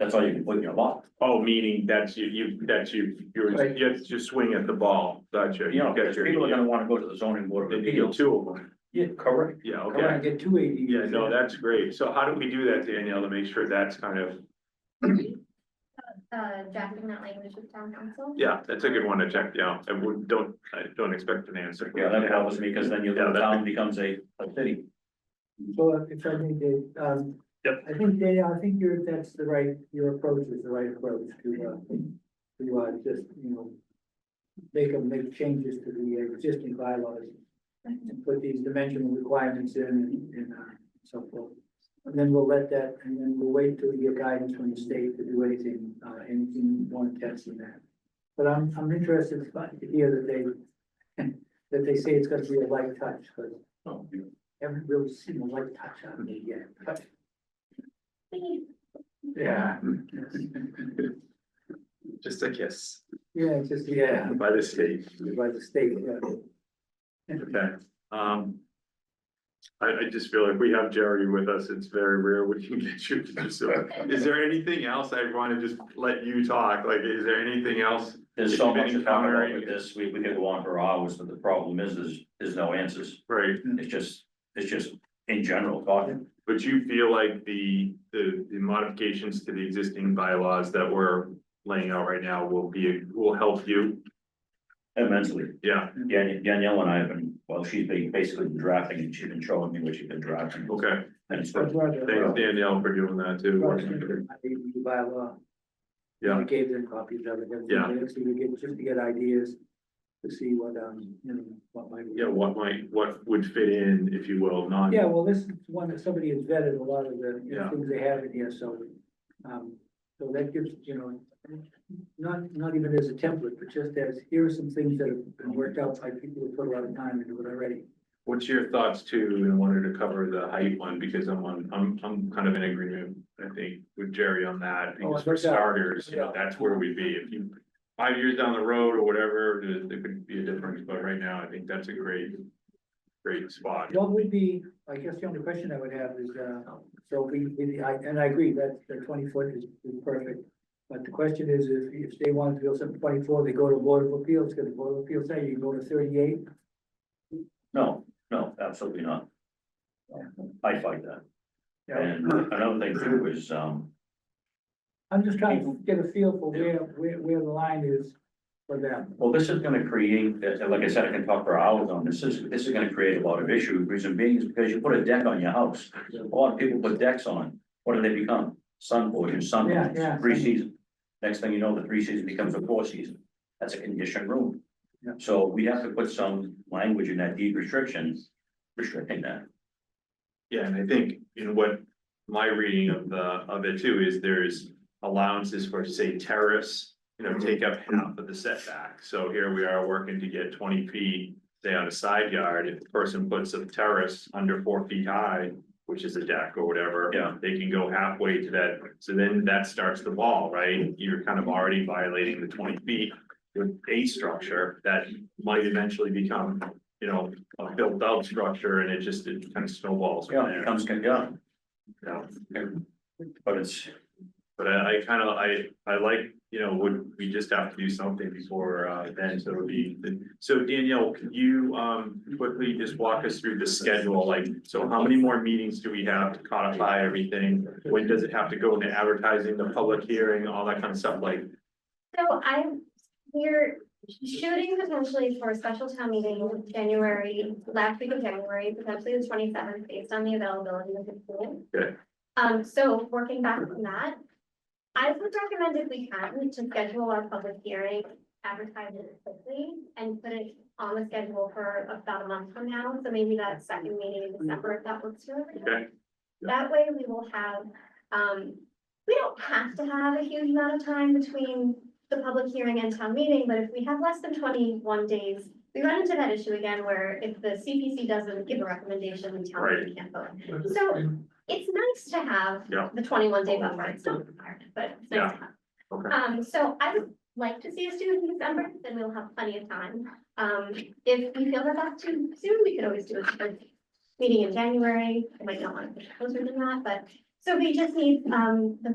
That's all you can put in your lot. Oh, meaning that's you, you, that's you, you're, Right. you you swing at the ball, gotcha. You know, got because your- people are gonna wanna go to the zoning board of Then you get appeals. two of them, Yeah, correct. yeah, Come on, okay, get two ADUs. yeah, no, in. that's great, so how do we do that, Danielle, to make sure that's kind of, uh, drafting that language with town council. yeah, that's a good one to check, yeah, I would, don't, I don't expect an answer. Yeah, that helps because then your Yeah, little that- town becomes a, a city. So if I may, Dave, um. Yep. I think, Dave, I think your, that's the right, your approach is the right approach to, uh, to, uh, just, you know. Make them make changes to the existing bylaws and put these dimensional requirements in and, and, uh, so forth. And then we'll let that, and then we'll wait till we get guidance from the state to do anything, uh, anything more intense than that. But I'm, I'm interested to hear that they, that they say it's gonna be a light touch, but Oh, haven't really seen a light touch on me yet. Yeah. Just a kiss Yeah, it's just, yeah, by the state. by the state, yeah. Okay, um. I, I just feel like we have Jerry with us, it's very rare we can get you, to do so, is there anything else I wanna just let you talk, like, is there anything else? There's If so you've much been to talk about encountering- with this, we, we could go on for hours, but the problem is, is, there's no answers. Right, It's just, it's just in general talking. but you feel like the, the, the modifications to the existing bylaws that we're laying out right now will be, will help you? Immensely. Yeah, Dan- Danielle and I have been, well, she's been basically drafting and she's been showing me what she's been drafting. okay, And it's I'd rather- thanks Danielle for doing that too. I think you By law. Yeah. I gave them copies of it. every Yeah. day, So you get, just to get ideas, to see what, um, you know, what might. Yeah, what might, what would fit in, if you will, non. Yeah, well, this is one that somebody has vetted a lot of the, you know, Yeah. things they have in here, so, um, so that gives, you know, not, not even as a template, but just as, here are some things that have been worked out by people who put a lot of time into it already. What's your thoughts too, and I wanted to cover the height one, because I'm on, I'm, I'm kind of in agreement, I think, with Jerry on that, Oh, because for yeah. starters, you know, that's where we'd be, if you. Five years down the road or whatever, there, there could be a difference, but right now, I think that's a great, great spot. What would be, I guess the only question I would have is, uh, so we, we, I, and I agree that the twenty foot is is perfect. But the question is, if, if they want to build something twenty-four, they go to Board of Appeals, because the Board of Appeals say you can go to thirty-eight. No, no, absolutely not. I fight that. Yeah. And another thing too is, um, I'm just trying to get a feel for where, where, where the line is for them. well, this is gonna create, uh, like I said, I can talk for hours on this, this is, this is gonna create a lot of issues. Reason being is because you put a deck on your house. A lot of people put decks on, what do they become? Sun boys, sun, Yeah, yeah. three season. Next thing you know, the three season becomes a four season. That's a conditioned room. Yeah. So we have to put some language in that deed restrictions restricting that. Yeah, and I think, you know, what my reading of the, of it too is there's allowances for, say, terrace. You know, take up half of the setback, so here we are working to get twenty feet, say, on a side yard, if the person puts a terrace under four feet high. Which is a deck or whatever. Yeah. They can go halfway to that, so then that starts the ball, right? You're kind of already violating the twenty feet. With a structure that might eventually become, you know, a built out structure and it just, it kind of snowballs. from Yeah, it there. becomes, yeah, Yeah, but it's, but I, I kind of, I, I like, you know, would, we just have to do something before, uh, then, so it'll be. So Danielle, could you, um, quickly just walk us through the schedule, like, so how many more meetings do we have to codify everything? When does it have to go into advertising, the public hearing, all that kind of stuff, like, So I'm, we're shooting potentially for a special town meeting, January, last week of January, potentially the twenty seventh, based on the availability of the pool. Okay. Um, so working back from that, I would recommend if we can, to schedule our public hearing, advertise it quickly and put it on the schedule for about a month from now, so maybe that second meeting in December, if that works for everyone. okay? That way we will have, um, we don't have to have a huge amount of time between the public hearing and town meeting, but if we have less than twenty-one days, we run into that issue again where if the CPC doesn't give a recommendation, we tell them we can't vote. So it's nice to have Yeah. the twenty-one day buffer. It's not a requirement, but it's nice to have. Okay. Um, so I would like to see us do it in December, then we'll have plenty of time. Um, if we feel that that's too soon, we could always do it for meeting in January. I might not want to push it closer than that, but so we just need, um, the